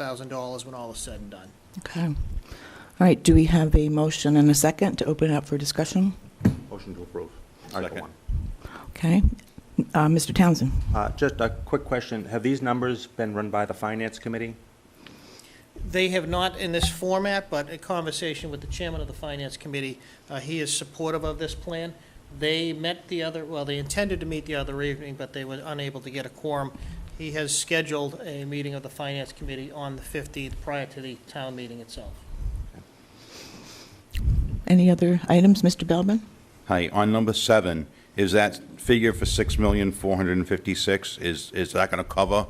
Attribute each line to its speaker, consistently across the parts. Speaker 1: $100,000 when all is said and done.
Speaker 2: Okay. All right, do we have a motion and a second to open it up for discussion?
Speaker 3: Motion to approve. Article
Speaker 4: Second.
Speaker 3: one.
Speaker 2: Okay. Uh, Mr. Townsend?
Speaker 3: Uh, Just a quick question. Have these numbers been run by the Finance Committee?
Speaker 1: They have not in this format, but a conversation with the chairman of the Finance Committee, uh, he is supportive of this plan. They met the other, well, they intended to meet the other evening, but they were unable to get a quorum. He has scheduled a meeting of the Finance Committee on the 15th prior to the town meeting itself.
Speaker 2: Any other items, Mr. Belbin?
Speaker 4: Hi, on number seven, is that figure for six million, four hundred and fifty-six, is, is that gonna cover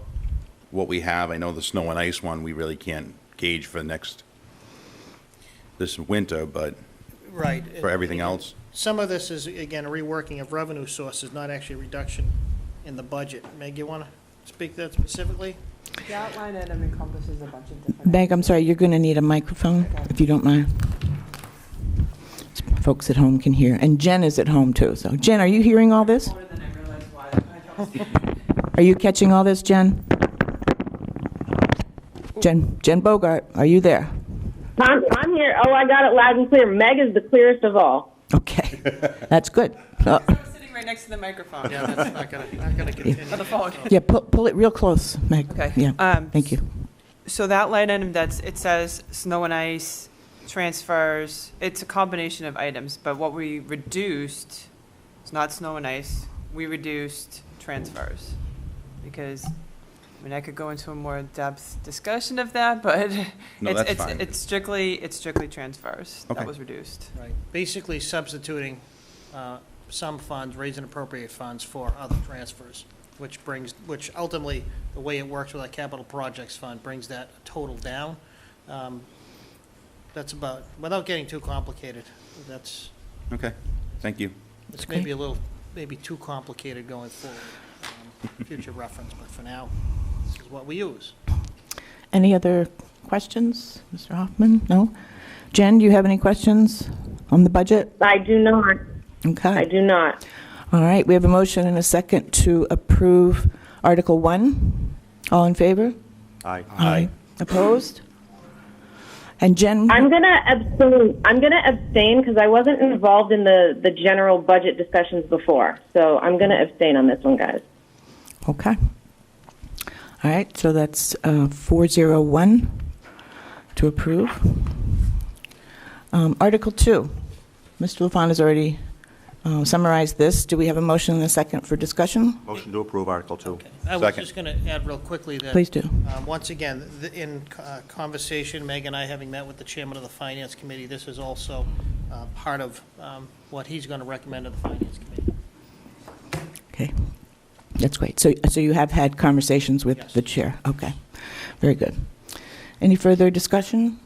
Speaker 4: what we have? I know the snow and ice one, we really can't gauge for next, this winter, but
Speaker 1: Right.
Speaker 4: for everything else?
Speaker 1: Some of this is, again, a reworking of revenue sources, not actually a reduction in the budget. Meg, you want to speak to that specifically?
Speaker 5: The outline item encompasses a bunch of different.
Speaker 2: Meg, I'm sorry, you're going to need a microphone, if you don't mind. Folks at home can hear, and Jen is at home, too. So Jen, are you hearing all this?
Speaker 5: More than I realized why I don't see.
Speaker 2: Are you catching all this, Jen? Jen, Jen Bogart, are you there?
Speaker 6: I'm, I'm here. Oh, I got it loud and clear. Meg is the clearest of all.
Speaker 2: Okay, that's good. Uh,
Speaker 5: I'm sitting right next to the microphone.
Speaker 1: Yeah, that's not going to, not going to continue.
Speaker 5: Or the phone.
Speaker 2: Yeah, pull pull it real close, Meg.
Speaker 5: Okay,
Speaker 2: Yeah,
Speaker 5: um,
Speaker 2: thank you.
Speaker 5: So that line item that's, it says snow and ice, transfers, it's a combination of items, but what we reduced, it's not snow and ice, we reduced transfers. Because, I mean, I could go into a more depth discussion of that, but
Speaker 4: No,
Speaker 5: it's,
Speaker 4: that's
Speaker 5: it's,
Speaker 4: fine.
Speaker 5: it's strictly, it's strictly transfers.
Speaker 4: Okay.
Speaker 5: That was reduced.
Speaker 1: Right, basically substituting uh, some funds, raise and appropriate funds for other transfers, which brings, which ultimately, the way it works with our capital projects fund, brings that total down. Um, That's about, without getting too complicated, that's,
Speaker 4: Okay, thank you.
Speaker 1: it's
Speaker 2: Okay.
Speaker 1: maybe a little, maybe too complicated going forward, um, future reference, but for now, this is what we use.
Speaker 2: Any other questions, Mr. Hoffman? No? Jen, do you have any questions on the budget?
Speaker 6: I do not. I
Speaker 2: Okay.
Speaker 6: do not.
Speaker 2: All right, we have a motion and a second to approve Article 1. All in favor?
Speaker 3: Aye.
Speaker 2: Opposed? And Jen?
Speaker 6: I'm gonna abstain. I'm gonna abstain because I wasn't involved in the the general budget discussions before. So I'm gonna abstain on this one, guys.
Speaker 2: Okay. All right, so that's uh, 401 to approve. Um, Article 2, Mr. LaFawn has already uh, summarized this. Do we have a motion and a second for discussion?
Speaker 3: Motion to approve Article two.
Speaker 1: I was
Speaker 4: Second.
Speaker 1: just going to add real quickly that.
Speaker 2: Please do.
Speaker 1: Um, Once again, th- in uh, conversation, Meg and I having met with the chairman of the Finance Committee, this is also uh, part of um, what he's going to recommend to the Finance Committee.
Speaker 2: Okay, that's great. So, so you have had conversations with
Speaker 1: Yes.
Speaker 2: the chair? Okay, very good. Any further discussion?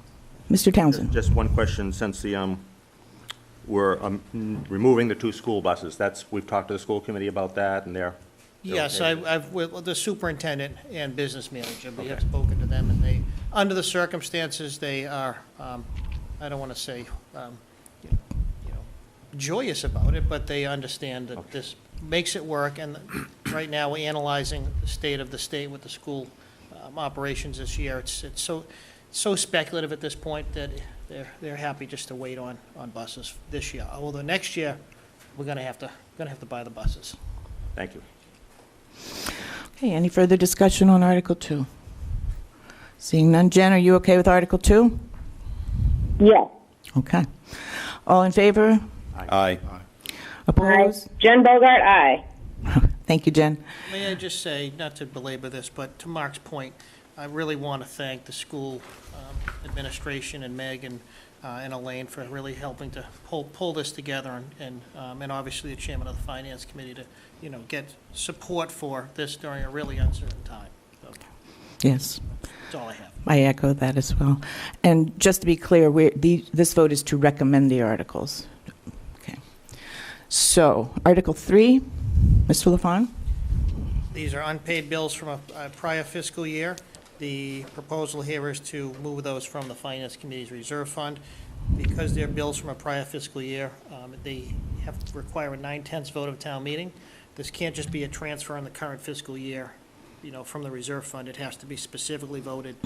Speaker 2: Mr. Townsend?
Speaker 3: Just one question, since the, um, we're um, removing the two school buses, that's, we've talked to the school committee about that, and they're. they're
Speaker 1: Yes,
Speaker 3: okay
Speaker 1: I-
Speaker 3: with it.
Speaker 1: I've, with the superintendent and business manager, we have spoken to them, and they, under the circumstances, they are, um, I don't want to say, um, you know, you know, joyous about it, but they understand that this makes it work, and right now, we're analyzing the state of the state with the school um, operations this year. It's, it's so, so speculative at this point that they're, they're happy just to wait on, on buses this year. Although next year, we're going to have to, going to have to buy the buses.
Speaker 3: Thank you.
Speaker 2: Okay, any further discussion on Article 2? Seeing none, Jen, are you okay with Article 2?
Speaker 6: Yes.
Speaker 2: Okay. All in favor?
Speaker 4: Aye.
Speaker 6: Aye.
Speaker 2: Opposed?
Speaker 6: Jen Bogart, aye.
Speaker 2: Thank you, Jen.
Speaker 1: May I just say, not to belabor this, but to Mark's point, I really want to thank the school um, administration and Meg and, uh, and Elaine for really helping to pull, pull this together and- and, um, and obviously the chairman of the finance committee to, you know, get support for this during a really uncertain time. So
Speaker 2: Yes,
Speaker 1: That's all I have.
Speaker 2: I echo that as well. And just to be clear, we, the, this vote is to recommend the articles. Okay. So, Article 3, Mr. LaFawn?
Speaker 1: These are unpaid bills from a a prior fiscal year. The proposal here is to move those from the Finance Committee's reserve fund. Because they're bills from a prior fiscal year, um, they have, require a nine-tenths vote of town meeting. This can't just be a transfer in the current fiscal year, you know, from the reserve fund. It has to be specifically voted